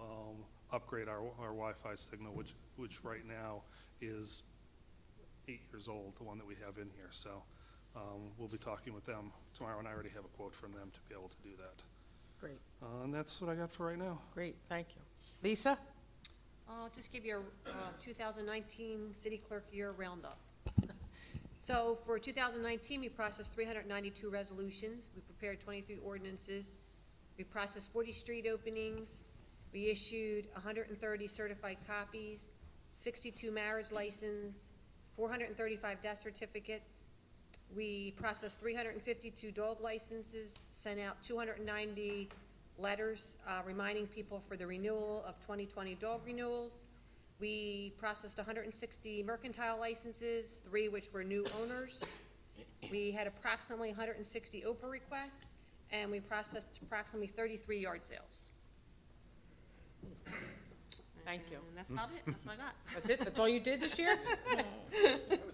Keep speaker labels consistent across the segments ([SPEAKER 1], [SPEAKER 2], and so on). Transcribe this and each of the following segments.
[SPEAKER 1] um, upgrade our, our Wi-Fi signal, which, which right now is eight years old, the one that we have in here. So um, we'll be talking with them tomorrow, and I already have a quote from them to be able to do that.
[SPEAKER 2] Great,
[SPEAKER 1] Uh, And that's what I got for right now.
[SPEAKER 2] great, thank you. Lisa?
[SPEAKER 3] I'll just give you a uh, 2019 city clerk year roundup. So for 2019, we processed 392 resolutions, we prepared 23 ordinances, we processed 40 street openings, we issued 130 certified copies, 62 marriage licenses, 435 death certificates, we processed 352 dog licenses, sent out 290 letters uh, reminding people for the renewal of 2020 dog renewals. We processed 160 mercantile licenses, three which were new owners. We had approximately 160 OPA requests, and we processed approximately 33 yard sales.
[SPEAKER 2] Thank you.
[SPEAKER 3] And that's about it, that's what I got.
[SPEAKER 2] That's it, that's all you did this year?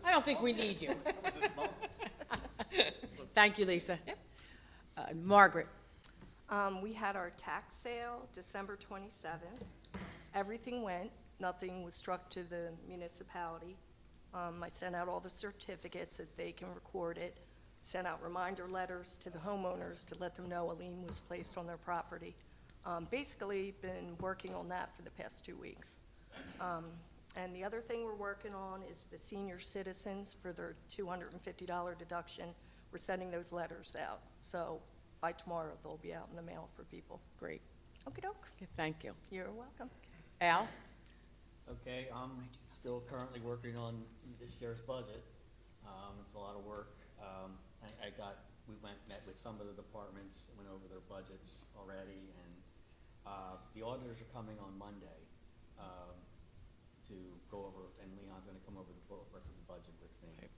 [SPEAKER 2] I don't think we need you. Thank you, Lisa.
[SPEAKER 3] Yep.
[SPEAKER 2] Uh, Margaret?
[SPEAKER 4] Um, we had our tax sale December twenty-seventh. Everything went, nothing was struck to the municipality. Um, I sent out all the certificates that they can record it, sent out reminder letters to the homeowners to let them know a lien was placed on their property. Um, basically, been working on that for the past two weeks. Um, and the other thing we're working on is the senior citizens for their two hundred and fifty dollar deduction. We're sending those letters out, so by tomorrow, they'll be out in the mail for people.
[SPEAKER 2] Great,
[SPEAKER 4] okey doke,
[SPEAKER 2] Okay, thank you.
[SPEAKER 4] you're welcome.
[SPEAKER 2] Al?
[SPEAKER 5] Okay, I'm still currently working on this year's budget. Um, it's a lot of work. Um, I, I got, we went, met with some of the departments, went over their budgets already, and, uh, the auditors are coming on Monday, um, to go over, and Leon's gonna come over to go over the budget with me.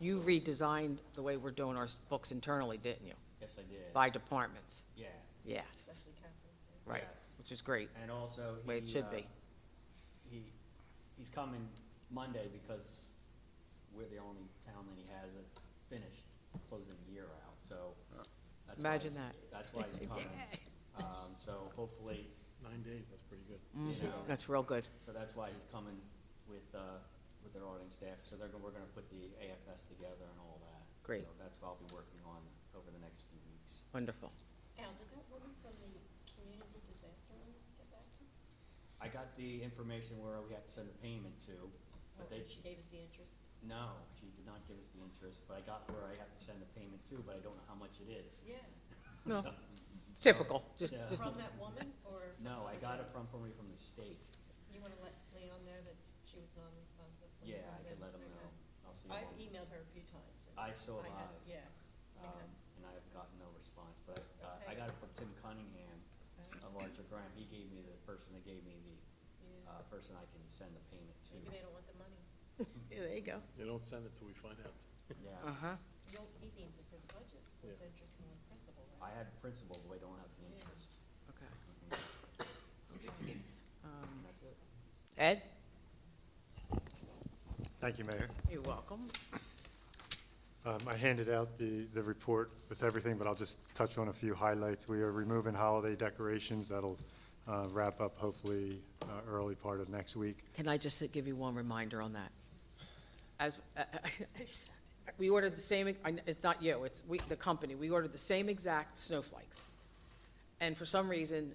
[SPEAKER 2] You redesigned the way we're doing our books internally, didn't you?
[SPEAKER 5] Yes, I did.
[SPEAKER 2] By departments?
[SPEAKER 5] Yeah,
[SPEAKER 2] Yes, right,
[SPEAKER 5] Yes.
[SPEAKER 2] which is great.
[SPEAKER 5] and also he.
[SPEAKER 2] Way it should
[SPEAKER 5] uh,
[SPEAKER 2] be.
[SPEAKER 5] He, he's coming Monday because we're the only town that he has that's finished closing the year out, so. that's why-
[SPEAKER 2] Imagine that.
[SPEAKER 5] That's why he's coming. Um, so hopefully,
[SPEAKER 6] Nine days, that's pretty good.
[SPEAKER 5] you know,
[SPEAKER 2] Mm-hmm. That's real good.
[SPEAKER 5] so that's why he's coming with, uh, with their auditing staff, so they're, gonna- we're gonna put the AFS together and all that.
[SPEAKER 2] Great.
[SPEAKER 5] So that's what I'll be working on over the next few weeks.
[SPEAKER 2] Wonderful.
[SPEAKER 7] Al, did that woman from the community disaster one get back to you?
[SPEAKER 5] I got the information where we have to send a payment to, but they,
[SPEAKER 7] Or She gave us the interest.
[SPEAKER 5] No, she did not give us the interest, but I got where I have to send a payment to, but I don't know how much it is.
[SPEAKER 7] Yeah.
[SPEAKER 2] No.
[SPEAKER 5] So-
[SPEAKER 2] Typical, just,
[SPEAKER 5] Yeah.
[SPEAKER 2] just,
[SPEAKER 7] From that woman or? from
[SPEAKER 5] No, I
[SPEAKER 7] somebody
[SPEAKER 5] got it
[SPEAKER 7] else?
[SPEAKER 5] from, from from the state.
[SPEAKER 7] You want to let Leon know that she was non-responsive? when he
[SPEAKER 5] Yeah, I can
[SPEAKER 7] comes in?
[SPEAKER 5] let them
[SPEAKER 7] Okay.
[SPEAKER 5] know. I'll see
[SPEAKER 7] I've e-
[SPEAKER 5] them.
[SPEAKER 7] emailed her a few times. and
[SPEAKER 5] I saw
[SPEAKER 7] I
[SPEAKER 5] that,
[SPEAKER 7] have- Yeah.
[SPEAKER 5] um, and I have gotten no response, but I, uh, I got
[SPEAKER 7] Okay.
[SPEAKER 5] it from Tim Cunningham of Archer Graham. He gave me the person that gave me the,
[SPEAKER 7] Yeah.
[SPEAKER 5] uh, person I can send the payment to.
[SPEAKER 7] Maybe they don't want the money.
[SPEAKER 2] Yeah, there you go.
[SPEAKER 6] They don't send it till we find out.
[SPEAKER 5] Yeah,
[SPEAKER 2] Uh-huh,
[SPEAKER 7] You'll, he needs it for the budget.
[SPEAKER 6] Yeah.
[SPEAKER 7] It's interest in the principal,
[SPEAKER 5] I
[SPEAKER 7] right?
[SPEAKER 5] had principal, but I don't have the interest.
[SPEAKER 2] okay.
[SPEAKER 5] Mhm.
[SPEAKER 2] Um,
[SPEAKER 5] That's it.
[SPEAKER 2] Ed?
[SPEAKER 8] Thank you, Mayor.
[SPEAKER 2] You're welcome.
[SPEAKER 8] Um, I handed out the, the report with everything, but I'll just touch on a few highlights. We are removing holiday decorations. That'll uh, wrap up hopefully uh, early part of next week.
[SPEAKER 2] Can I just give you one reminder on that? As, uh, we ordered the same, I kn- it's not you, it's we, the company, we ordered the same exact snowflakes. And for some reason,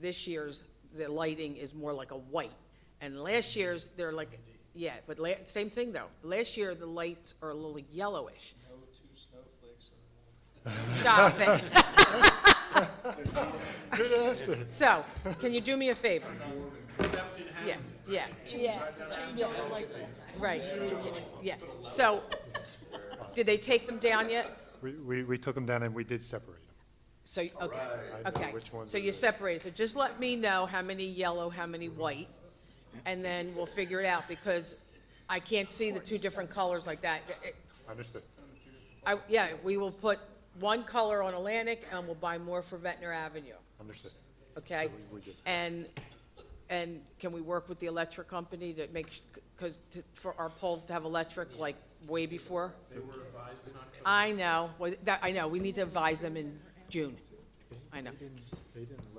[SPEAKER 2] this year's, the lighting is more like a white. And last year's, they're like, yeah, but la, same thing though. Last year, the lights are a little yellowish.
[SPEAKER 9] No two snowflakes in one.
[SPEAKER 2] Stop it. So, can you do me a favor? Yeah, yeah. Right, yeah. So, did they take them down yet?
[SPEAKER 8] We, we, we took them down and we did separate them.
[SPEAKER 2] So, you- okay,
[SPEAKER 8] I know
[SPEAKER 2] okay.
[SPEAKER 8] which ones
[SPEAKER 2] So
[SPEAKER 8] it
[SPEAKER 2] you
[SPEAKER 8] is.
[SPEAKER 2] separated, so just let me know how many yellow, how many white, and then we'll figure it out, because I can't see the two different colors like that. It- it-
[SPEAKER 8] Understood.
[SPEAKER 2] I, yeah, we will put one color on Atlantic, and we'll buy more for Ventnor Avenue.
[SPEAKER 8] Understood.
[SPEAKER 2] okay?
[SPEAKER 8] So we- we did.
[SPEAKER 2] And, and can we work with the electric company to make, because for our poles to have electric like way before?
[SPEAKER 9] They were advised not to
[SPEAKER 2] I know, well, that, I know, we need to advise them in June. I know.
[SPEAKER 8] They didn't